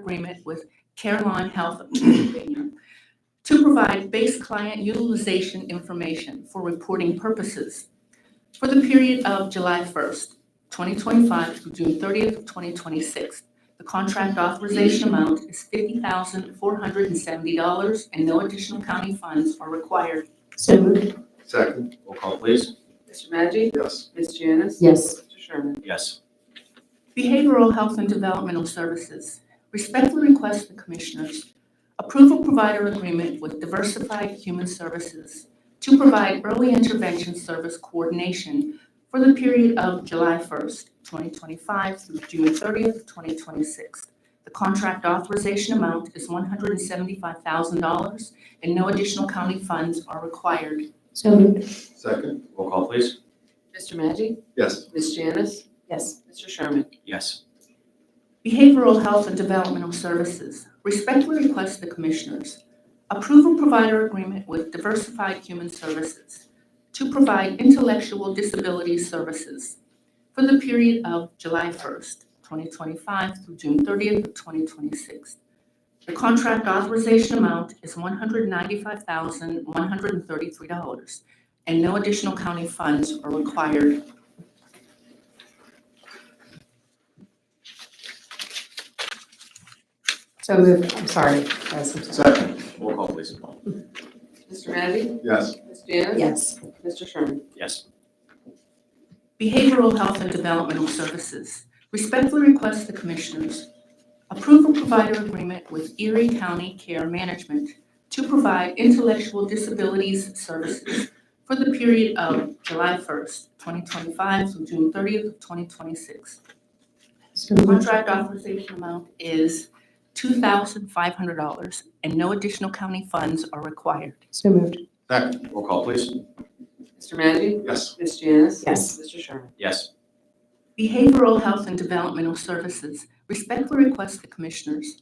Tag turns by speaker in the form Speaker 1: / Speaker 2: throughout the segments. Speaker 1: agreement with Caroline Health to provide base client utilization information for reporting purposes for the period of July 1st, 2025 through June 30th, of 2026. The contract authorization amount is $50,470, and no additional county funds are required.
Speaker 2: So moved.
Speaker 3: Second.
Speaker 4: Roll call, please.
Speaker 5: Mr. Maggi?
Speaker 3: Yes.
Speaker 5: Ms. Janice?
Speaker 2: Yes.
Speaker 5: Mr. Sherman?
Speaker 4: Yes.
Speaker 1: Behavioral Health and Developmental Services respectfully request the Commissioners approve a provider agreement with Diversified Human Services to provide early intervention service coordination for the period of July 1st, 2025 through June 30th, 2026. The contract authorization amount is $175,000, and no additional county funds are required.
Speaker 2: So moved.
Speaker 3: Second.
Speaker 4: Roll call, please.
Speaker 5: Mr. Maggi?
Speaker 3: Yes.
Speaker 5: Ms. Janice?
Speaker 2: Yes.
Speaker 5: Mr. Sherman?
Speaker 4: Yes.
Speaker 1: Behavioral Health and Developmental Services respectfully request the Commissioners approve a provider agreement with Diversified Human Services to provide intellectual disability services for the period of July 1st, 2025 through June 30th, of 2026. The contract authorization amount is $195,133, and no additional county funds are required.
Speaker 2: So moved. I'm sorry. Yes. I'm sorry.
Speaker 3: Second.
Speaker 4: Roll call, please.
Speaker 5: Mr. Maggi?
Speaker 3: Yes.
Speaker 5: Ms. Janice?
Speaker 2: Yes.
Speaker 5: Mr. Sherman?
Speaker 4: Yes.
Speaker 1: Behavioral Health and Developmental Services respectfully request the Commissioners approve a provider agreement with Erie County Care Management to provide intellectual disabilities services for the period of July 1st, 2025 through June 30th, of 2026.
Speaker 2: So
Speaker 1: The
Speaker 2: moved.
Speaker 1: Contract authorization amount is $2,500, and no additional county funds are required.
Speaker 2: So moved.
Speaker 3: Second.
Speaker 4: Roll call, please.
Speaker 5: Mr. Maggi?
Speaker 3: Yes.
Speaker 5: Ms. Janice?
Speaker 2: Yes.
Speaker 5: Mr. Sherman?
Speaker 4: Yes.
Speaker 1: Behavioral Health and Developmental Services respectfully request the Commissioners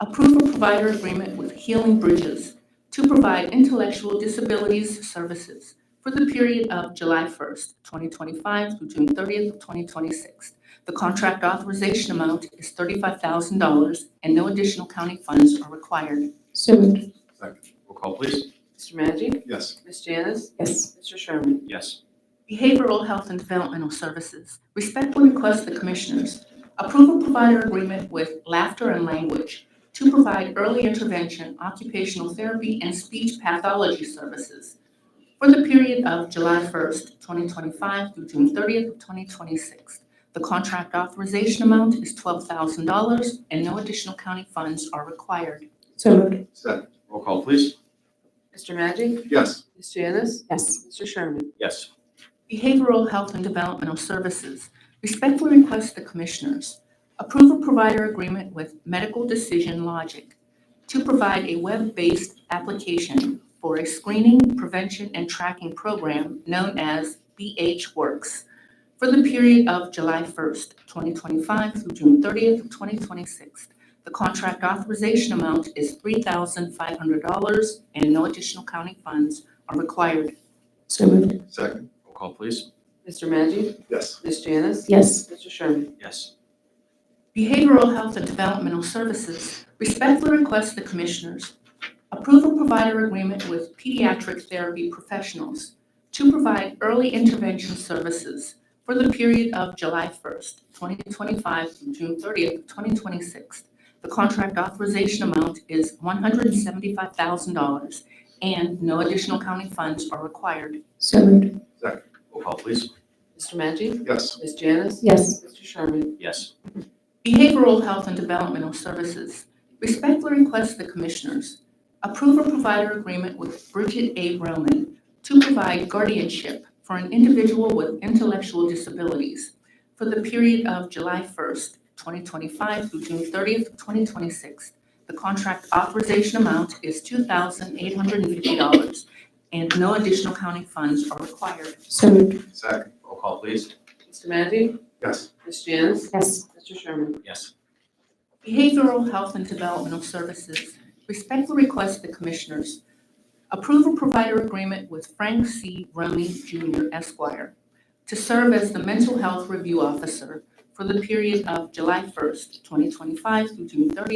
Speaker 1: approve a provider agreement with Healing Bridges to provide intellectual disabilities services for the period of July 1st, 2025 through June 30th, of 2026. The contract authorization amount is $35,000 and no additional county funds are required.
Speaker 2: So moved.
Speaker 3: Second.
Speaker 4: Roll call, please.
Speaker 5: Mr. Maggi?
Speaker 3: Yes.
Speaker 5: Ms. Janice?
Speaker 2: Yes.
Speaker 5: Mr. Sherman?
Speaker 4: Yes.
Speaker 1: Behavioral Health and Developmental Services respectfully request the Commissioners approve a provider agreement with Laughter and Language to provide early intervention, occupational therapy, and speech pathology services for the period of July 1st, 2025 through June 30th, of 2026. The contract authorization amount is $12,000, and no additional county funds are required.
Speaker 2: So moved.
Speaker 3: Second.
Speaker 4: Roll call, please.
Speaker 5: Mr. Maggi?
Speaker 3: Yes.
Speaker 5: Ms. Janice?
Speaker 2: Yes.
Speaker 5: Mr. Sherman?
Speaker 4: Yes.
Speaker 1: Behavioral Health and Developmental Services respectfully request the Commissioners approve a provider agreement with Medical Decision Logic to provide a web-based application for a screening, prevention, and tracking program known as BH Works for the period of July 1st, 2025 through June 30th, of 2026. The contract authorization amount is $3,500, and no additional county funds are required.
Speaker 2: So moved.
Speaker 3: Second.
Speaker 4: Roll call, please.
Speaker 5: Mr. Maggi?
Speaker 3: Yes.
Speaker 5: Ms. Janice?
Speaker 2: Yes.
Speaker 5: Mr. Sherman?
Speaker 4: Yes.
Speaker 1: Behavioral Health and Developmental Services respectfully request the Commissioners approve a provider agreement with pediatric therapy professionals to provide early intervention services for the period of July 1st, 2025 through June 30th, 2026. The contract authorization amount is $175,000, and no additional county funds are required.
Speaker 2: So moved.
Speaker 4: Roll call, please.
Speaker 5: Mr. Maggi?
Speaker 3: Yes.
Speaker 5: Ms. Janice?
Speaker 2: Yes.
Speaker 5: Mr. Sherman?
Speaker 4: Yes.
Speaker 1: Behavioral Health and Developmental Services respectfully request the Commissioners approve a provider agreement with Bridget A. Roman to provide guardianship for an individual with intellectual disabilities for the period of July 1st, 2025 through June 30th, 2026. The contract authorization amount is $2,850, and no additional county funds are required.
Speaker 2: So moved.
Speaker 3: Second.
Speaker 4: Roll call, please.
Speaker 5: Mr. Maggi?
Speaker 3: Yes.
Speaker 5: Ms. Janice?
Speaker 2: Yes.
Speaker 5: Mr. Sherman?
Speaker 4: Yes.
Speaker 1: Behavioral Health and Developmental Services respectfully request the Commissioners approve a provider agreement with Frank C. Rumney Jr. Esquire to serve as the Mental Health Review Officer for the period of July 1st, 2025 through June 30th,